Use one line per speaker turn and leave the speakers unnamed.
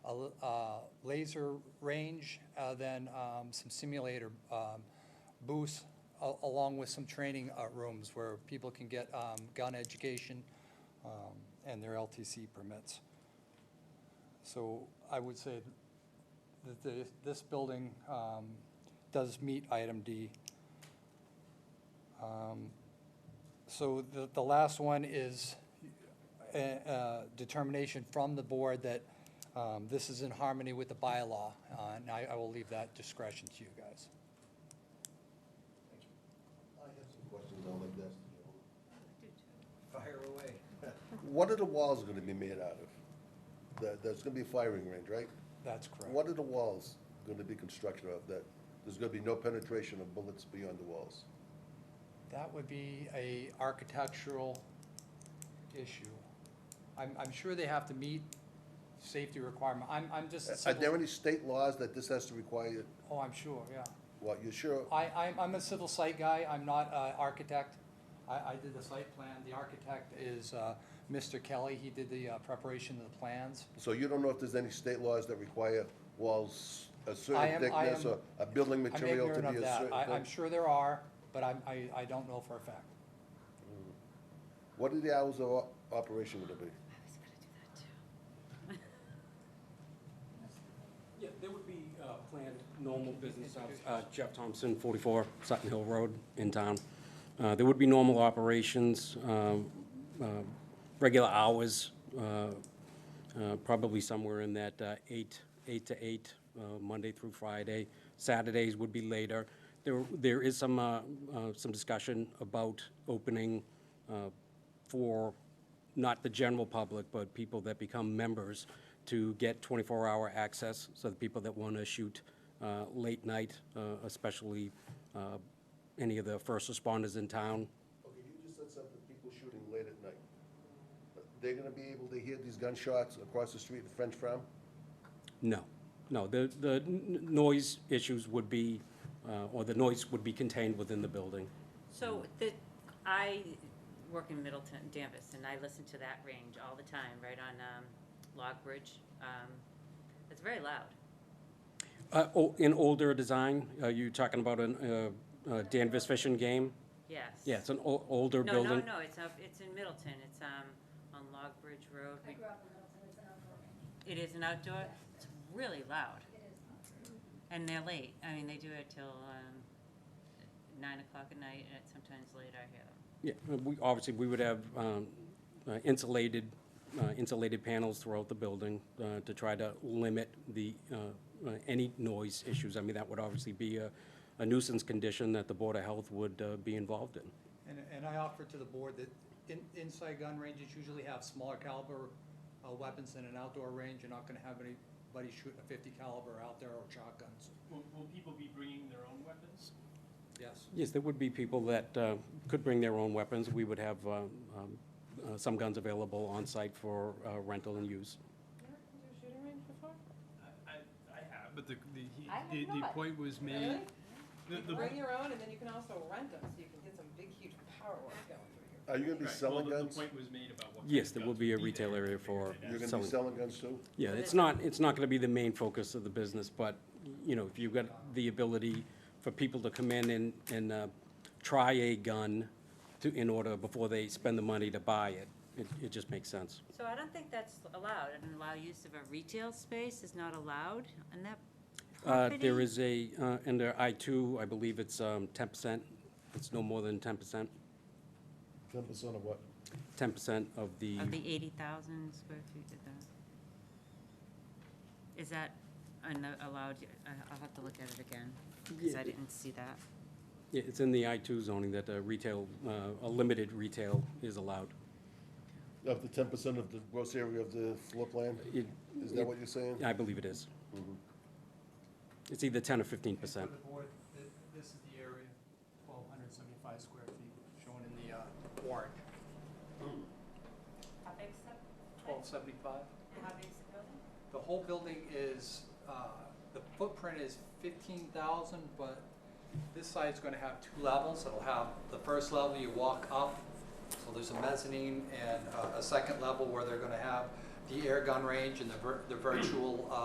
a l- uh, laser range, uh, then um, some simulator um, booths, a- along with some training uh, rooms where people can get um, gun education um, and their LTC permits. So I would say that the- this building um, does meet item D. Um, So the, the last one is a- a determination from the board that um, this is in harmony with the bylaw, uh, and I I will leave that discretion to you guys.
I have some questions on like this.
Fire away.
What are the walls gonna be made out of? There, there's gonna be a firing range, right?
That's correct.
What are the walls gonna be constructed of that? There's gonna be no penetration of bullets beyond the walls.
That would be a architectural issue. I'm, I'm sure they have to meet safety requirement. I'm, I'm just a
Are there
civil,
any state laws that this has to require,
oh, I'm sure, yeah.
what, you sure?
I, I'm, I'm a civil site guy, I'm not an architect. I, I did the site plan, the architect is uh, Mr. Kelly, he did the uh, preparation of the plans.
So you don't know if there's any state laws that require walls a
I
certain
am- I
thickness
am-
or a building
I'm
material to
ignorant of
be a
that,
certain
I, I'm
thing?
sure there are, but I'm, I, I don't know for a fact.
What are the hours of o- operation gonna be?
I was gonna do that too.
Yeah, there would be uh, planned normal business hours. Uh, Jeff Thompson, 44 Sutton Hill Road in town. Uh, There would be normal operations, um, uh, regular hours, uh, uh, probably somewhere in that uh, 8, 8 to 8, uh, Monday through Friday. Saturdays would be later. There, There is some, uh, uh, some discussion about opening uh, for not the general public, but people that become members to get 24-hour access, so the people that want to shoot uh, late night, uh, especially uh, any of the first responders in town.
Okay, you just said something, people shooting late at night. They're gonna be able to hear these gunshots across the street at French Farm?
No, no, the, the n- n- noise issues would be, uh, or the noise would be contained within the building.
So the, I work in Middleton, Danvers, and I listen to that range all the time, right on, um, Log Bridge. Um, it's very loud.
Uh, o- In older design, are you talking about uh, a Danvers fishing game?
Yes.
Yeah, it's an o- older
No,
building.
no, no, it's up, it's in Middleton. It's, um, on Log Bridge Road.
I grew up in Middleton, it's an outdoor range.
It is an outdoor, it's really loud.
It is not.
And they're late. I mean, they do it till, um, nine o'clock at night and sometimes later I hear them.
Yeah, uh, we, obviously, we would have um, uh, insulated, uh, insulated panels throughout the building uh, to try to limit the, uh, uh, any noise issues. I mean, that would obviously be a a nuisance condition that the Board of Health would uh, be involved in.
And, and I offer to the board that in, inside gun ranges usually have smaller caliber uh, weapons than an outdoor range. You're not gonna have anybody shooting a fifty caliber out there or shotguns.
Will, will people be bringing their own weapons?
Yes.
Yes, there would be people that uh, could bring their own weapons. We would have uh, um, uh, some guns available on-site for uh, rental and use.
I, I, I have, but the, the, he-
I have
the, the
not.
point was made.
Really?
The-
You
the-
can bring your own, and then you can also rent them, so you can get some big, huge power work going through your.
Are you gonna
right,
be
well,
selling
the- the
guns?
point was made about what.
Yes,
kind of
there
guns
will be a
would
retail
there.
area for
You're gonna be
selling.
selling guns too?
Yeah, it's not, it's not going to be the main focus of the business, but, you know, if you've got the ability for people to come in and, and uh, try a gun to, in order, before they spend the money to buy it, it, it just makes sense.
So I don't think that's allowed, and allow use of a retail space is not allowed on that
Uh,
property?
There is a, uh, under I-2, I believe it's um, 10%, it's no more than 10%,
Ten percent of what?
10% of the,
Of the eighty thousand square feet of the, is that un- allowed, I- I'll have to look at it again, because
Yeah.
I didn't see that.
Yeah, it's in the I-2 zoning that uh, retail, uh, a limited retail is allowed.
Of the ten percent of the gross area of the floor plan?
It-
Is that what you're saying?
I believe it is. It's either 10 or 15%.
For the board, th- this is the area, twelve hundred seventy-five square feet, shown in the uh, warrant.
How big's that,
Twelve seventy-five?
how big's the building?
The whole building is, uh, the footprint is fifteen thousand, but this side's gonna have two levels. It'll have the first level you walk up, so there's a mezzanine, and uh, a second level where they're gonna have the air gun range and the vir- the virtual uh,